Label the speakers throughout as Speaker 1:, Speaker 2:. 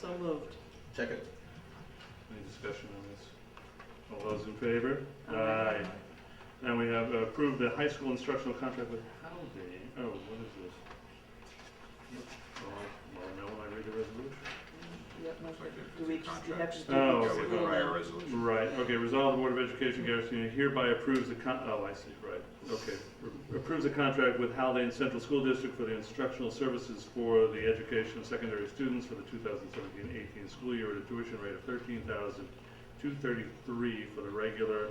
Speaker 1: So moved.
Speaker 2: Second.
Speaker 3: Any discussion on this? All those in favor?
Speaker 1: Aye.
Speaker 3: And we have approved the high school instructional contract with Howden. Oh, what is this? Oh, Well, now when I read the resolution.
Speaker 1: Yep, no,
Speaker 2: Looks like it's
Speaker 1: do we
Speaker 2: a
Speaker 1: just, you have
Speaker 2: contract.
Speaker 1: to do.
Speaker 3: Oh,
Speaker 2: Yeah,
Speaker 1: this
Speaker 2: we
Speaker 1: in
Speaker 2: go by
Speaker 1: the-
Speaker 2: our resolution.
Speaker 3: Right, okay, resolve the Board of Education, Garrison Union hereby approves the con, oh, I see, right, okay. Approves the contract with Howden Central School District for the instructional services for the education of secondary students for the 2017-18 school year at a tuition rate of thirteen thousand two thirty-three for the regular,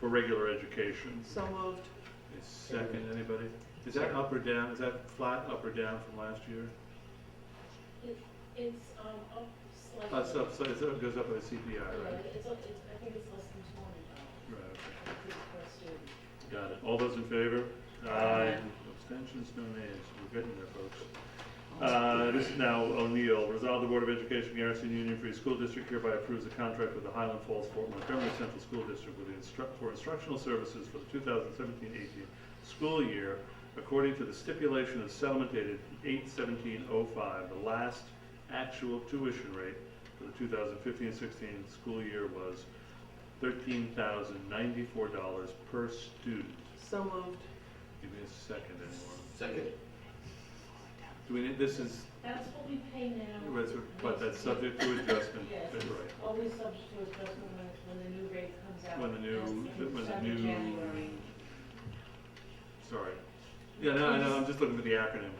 Speaker 3: for regular education.
Speaker 1: So moved.
Speaker 3: A second, anybody? Is that up or down, is that flat up or down from last year?
Speaker 4: It- It's, um, up slightly.
Speaker 3: Uh, so, so it's- it goes up with the CPI,
Speaker 4: Yeah,
Speaker 3: right?
Speaker 4: it's up, it's, I think it's less than two hundred dollars
Speaker 3: Right, okay.
Speaker 4: per student.
Speaker 3: Got it. All those in favor?
Speaker 1: Aye.
Speaker 3: Abstentions, no nays. We're getting there, folks. Uh, This is now O'Neill. Resolve the Board of Education Garrison Union Free School District hereby approves a contract with the Highland Falls Fort Montgomery Central School District with the instruct, for instructional services for the 2017-18 school year according to the stipulation of settlement dated 8/17/05. The last actual tuition rate for the 2015-16 school year was $13,094 per student.
Speaker 1: So moved.
Speaker 3: Give me a second anymore.
Speaker 2: Second.
Speaker 3: Do we need, this is,
Speaker 4: That's what we pay now.
Speaker 3: was- but that's subject to adjustment,
Speaker 4: Yes.
Speaker 3: that's right.
Speaker 4: Always subject to adjustment when, when the new rate comes out.
Speaker 3: When the new,
Speaker 4: That's in
Speaker 3: when the
Speaker 4: December,
Speaker 3: new,
Speaker 4: January.
Speaker 3: sorry. Yeah, no, I know, I'm just looking for the acronym.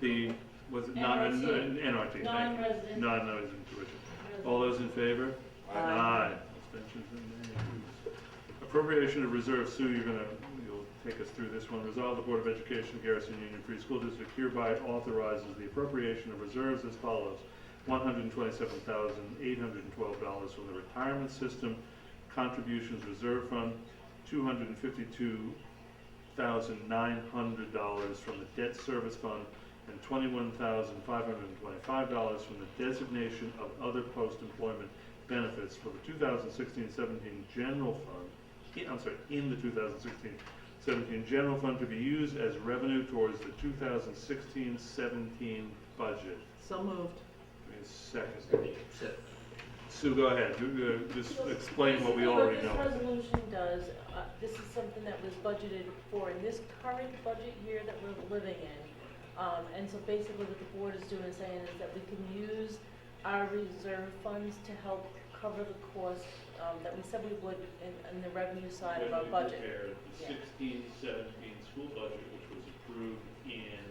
Speaker 3: The, was it non,
Speaker 4: NRT.
Speaker 3: NRT, thank you.
Speaker 4: Non-resident.
Speaker 3: Non-resident tuition.
Speaker 4: resident.
Speaker 3: All those in favor?
Speaker 1: Aye.
Speaker 3: Abstentions and nays. Appropriation of reserve, Sue, you're gonna, you'll take us through this one. Resolve the Board of Education Garrison Union Free School District hereby authorizes the appropriation of reserves as follows. One hundred and twenty-seven thousand, eight hundred and twelve dollars from the Retirement System Contributions Reserve Fund, two hundred and fifty-two thousand, nine hundred dollars from the Debt Service Fund, and twenty-one thousand, five hundred and twenty-five dollars from the designation of other post-employment benefits for the 2016-17 general fund, i- I'm sorry, in the 2016-17 general fund to be used as revenue towards the 2016-17 budget.
Speaker 1: So moved.
Speaker 3: Give me a second.
Speaker 2: Second.
Speaker 3: Sue, go ahead, You, uh, just
Speaker 4: So,
Speaker 3: explain what we already
Speaker 4: This
Speaker 3: know.
Speaker 4: is what this resolution does, uh, this is something that was budgeted for in this current budget year that we're living in. Um, and so basically what the board is doing is saying is that we can use our reserve funds to help cover the cost, um, that we said we would in, in the revenue side of our budget.
Speaker 3: the
Speaker 4: the
Speaker 3: 16-17 school budget, which was approved in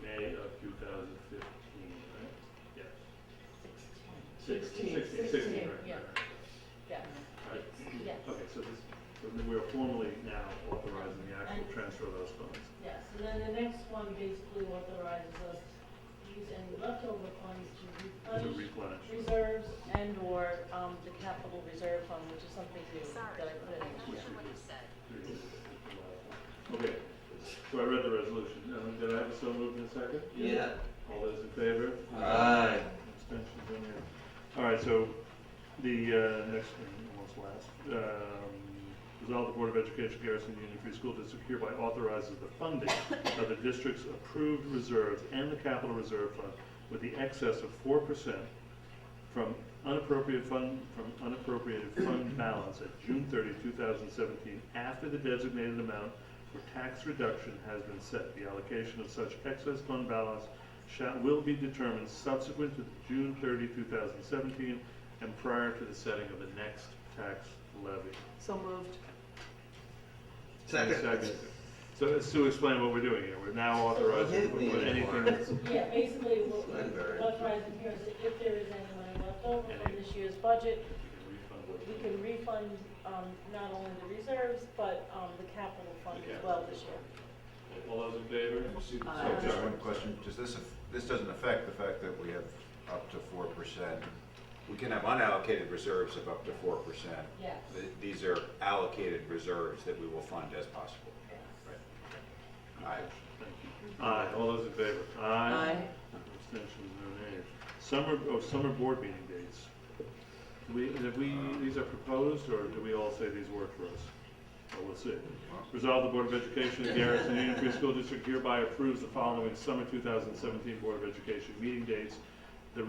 Speaker 3: May of 2015, right? Yes.
Speaker 4: Sixteen. Sixteen, Sixteen, right, yeah. right, Yeah, yes,
Speaker 3: Okay, so this, so then we're formally now authorizing the actual transfer of those funds.
Speaker 4: yes, and then the next one basically authorizes us to use any leftover funds to
Speaker 3: To
Speaker 4: replenish
Speaker 3: replenish,
Speaker 4: reserves and/or um, the capital reserve fund, which is something new
Speaker 5: Sorry.
Speaker 4: that I put in.
Speaker 5: Not sure what you said.
Speaker 3: Okay, so I read the resolution, Um, did I have a so moved in a second?
Speaker 2: Yeah.
Speaker 3: All those in favor?
Speaker 2: Aye.
Speaker 3: Abstentions in there. All right, so the uh, next one, almost last. Um, Resolve the Board of Education Garrison Union Free School District hereby authorizes the funding of the district's approved reserves and the capital reserve fund with the excess of four percent from unappropriate fund, from unappropriated fund balance at June 30, 2017, after the designated amount for tax reduction has been set. The allocation of such excess fund balance shall, will be determined subsequent to June 30, 2017, and prior to the setting of the next tax levy.
Speaker 1: So moved.
Speaker 2: Second.
Speaker 3: So Sue, explain what we're doing here. We're now authorizing
Speaker 2: Hit me.
Speaker 3: anything that's
Speaker 4: Yeah, basically, what
Speaker 2: Not very.
Speaker 4: what's rising here is that if there is any money left over from
Speaker 3: Any.
Speaker 4: this year's budget, we
Speaker 3: refundable.
Speaker 4: can refund um, not only the reserves, but um, the capital fund
Speaker 3: The
Speaker 4: as
Speaker 3: capital.
Speaker 4: well this year.
Speaker 3: All those in favor?
Speaker 4: Aye.
Speaker 6: So just one question, does this, aff- this doesn't affect the fact that we have up to four percent? We can have unallocated reserves of up to four percent.
Speaker 4: Yes.
Speaker 6: These are allocated reserves that we will fund as possible. Aye.
Speaker 3: Thank you. Aye, all those in favor? Aye.
Speaker 1: Aye.
Speaker 3: Abstentions, no nays. Summer, oh, summer board meeting dates. Do We, have we, these are proposed, or do we all say these work for us? Well, we'll see. Resolve the Board of Education of Garrison Union Free School District hereby approves the following summer 2017 Board of Education meeting dates